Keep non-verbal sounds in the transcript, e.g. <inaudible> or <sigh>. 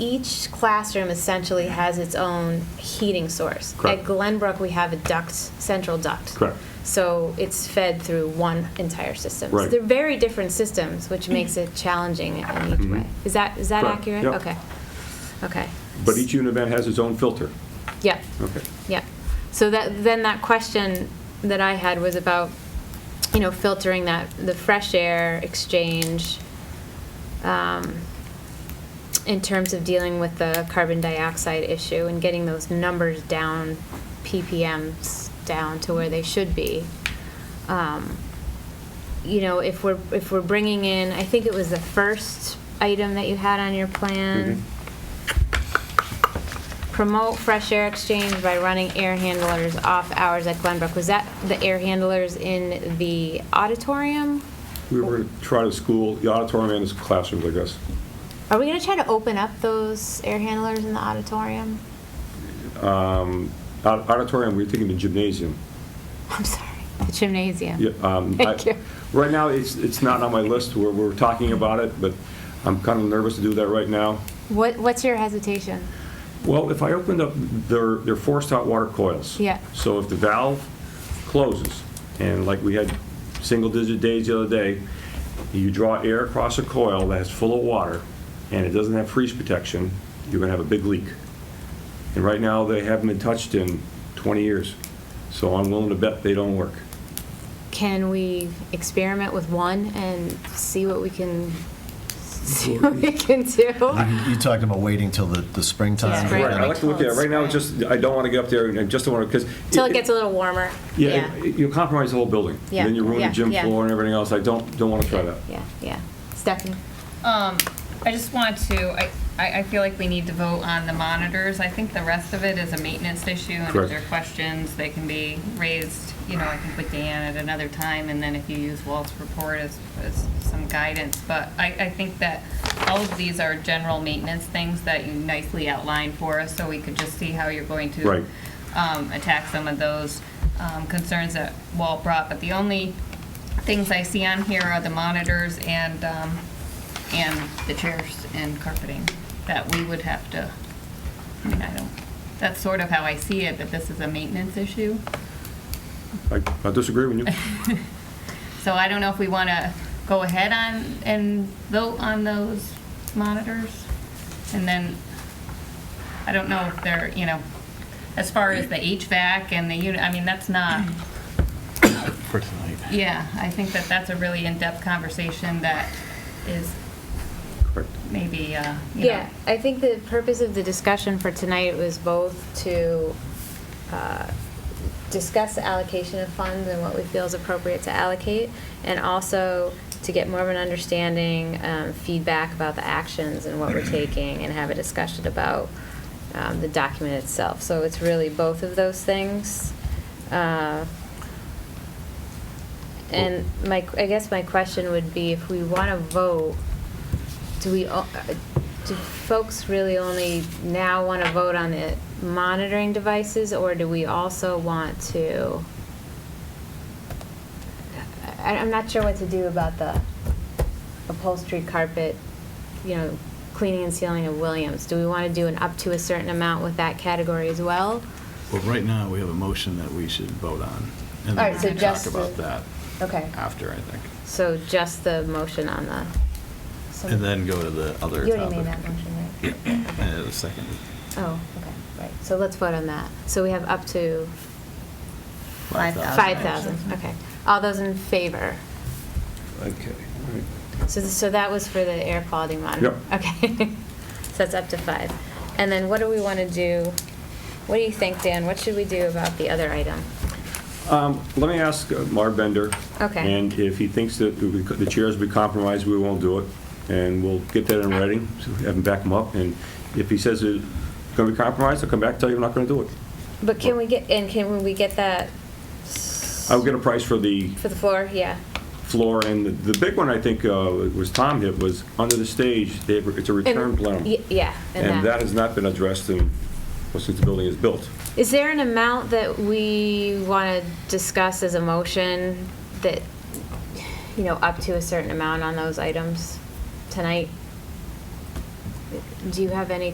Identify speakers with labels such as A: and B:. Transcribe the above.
A: each classroom essentially has its own heating source.
B: Correct.
A: At Glenbrook, we have a duct, central duct.
B: Correct.
A: So it's fed through one entire system. So
B: Right.
A: They're very different systems, which makes it challenging in each way. Is that, is that
B: Mm-hmm. Correct.
A: accurate?
B: Yep.
A: Okay, okay.
B: But e- each unit event has its own filter.
A: Yeah.
B: Okay.
A: Yeah. So that, then that question that I had was about, you know, filtering that, the fresh air exchange um, in terms of dealing with the carbon dioxide issue and getting those numbers down, PPMs down to where they should be. Um, You know, if we're, if we're bringing in, I think it was the first item that you had on your plan promote fresh air exchange by running air handlers off hours at Glenbrook. Was that the air handlers in the auditorium?
B: We were going to try to school, the auditorium and the classrooms, I guess.
A: Are we gonna try to open up those air handlers in the auditorium? <laughs>
B: Au- Auditorium, we we're thinking the gymnasium.
A: I'm sorry, the gymnasium.
B: Yeah, um, I-
A: Thank you.
B: Right now, it's, it's not on my list, we're, we're talking about it, but I'm kind of nervous to do that right now.
A: What, what's your hesitation?
B: Well, if I opened up, they're, they're forced hot water coils.
A: Yeah.
B: So if the valve closes, and like we had single-digit days the other day, you draw air across a coil that's full of water, and it doesn't have freeze protection, you're gonna have a big leak. And right now, they haven't been touched in 20 years, so I'm willing to bet they don't work.
A: Can we experiment with one and see what we can, see what we can
B: <laughs>
A: do?
C: You talked about waiting till the, the springtime.
A: Spring.
B: Right, I like to look at it, right now, it's just, I don't wanna get up there, and I just don't wanna, because.
A: Till it gets a little warmer?
B: Yeah, it- you compromise the whole building.
A: Yeah,
B: Then you ruin the
A: yeah,
B: gym
A: yeah.
B: floor and everything else, I don't, don't wanna try that.
A: Yeah, yeah. Stephanie?
D: Um, I just want to, I, I I feel like we need to vote on the monitors. I think the rest of it is a maintenance issue, and
B: Correct.
D: if there are questions, they can be raised, you know, I think with Dan at another time, and then if you use Walt's report as, as some guidance. But I, I think that all of these are general maintenance things that you nicely outlined for us, so we could just see how you're going to
B: Right.
D: um, attack some of those um, concerns that Walt brought, but the only things I see on here are the monitors and, um, and the chairs and carpeting that we would have to, I mean, I don't, that's sort of how I see it, that this is a maintenance issue.
B: I I disagree with you.
D: So I don't know if we want to go ahead on, and vote on those monitors. And then, I don't know if they're, you know, as far as the HVAC and the unit, I mean, that's not,
E: for tonight.
D: yeah, I think that that's a really in-depth conversation that is
B: Correct.
D: maybe, uh, you know.
A: Yeah, I think the purpose of the discussion for tonight was both to uh, discuss the allocation of funds and what we feel is appropriate to allocate, and also to get more of an understanding, um, feedback about the actions and
D: <clears throat>
A: what we're taking, and have a discussion about um, the document itself. So it's really both of those things. Uh, And my, I guess my question would be, if we want to vote, do we, o- uh, do folks really only now want to vote on the monitoring devices, or do we also want to? I, I'm not sure what to do about the upholstery carpet, you know, cleaning and sealing of Williams. Do we want to do an up to a certain amount with that category as well?
E: Well, right now, we have a motion that we should vote on. and then
A: All right,
E: we
A: so
E: can
A: just
E: Talk about
A: the-
E: that
A: Okay,
E: after, I think,
A: so just the motion on the. so-
E: and then go to the other topic.
A: You already made that motion, right?
E: Uh, the second.
A: Oh, okay, right. So let's vote on that. So we have up to
E: Five thousand.
A: Five thousand, okay. All those in favor?
B: Okay. all right.
A: So, th- so that was for the air quality monitor?
B: Yep.
A: Okay. <laughs> So that's up to five. And then what do we want to do? What do you think, Dan? What should we do about the other item?
B: Um, Let me ask uh, Marv Bender.
A: Okay.
B: And if he thinks that we- the chairs will be compromised, we won't do it, and we'll get that in writing, so we have him back him up, and if he says it's going to be compromised, I'll come back and tell you I'm not going to do it.
A: But can we get, and can we get that
B: I'll get a price for the
A: for the floor? Yeah.
B: floor, and the the big one, I think, uh, was Tom hit, was under the stage, they have- it's a
A: And-
B: return
A: y-
B: plenum.
A: Yeah.
B: And that has not been addressed in, well, since the building is built.
A: Is there an amount that we want to discuss as a motion that, you know, up to a certain amount on those items tonight? Do you have any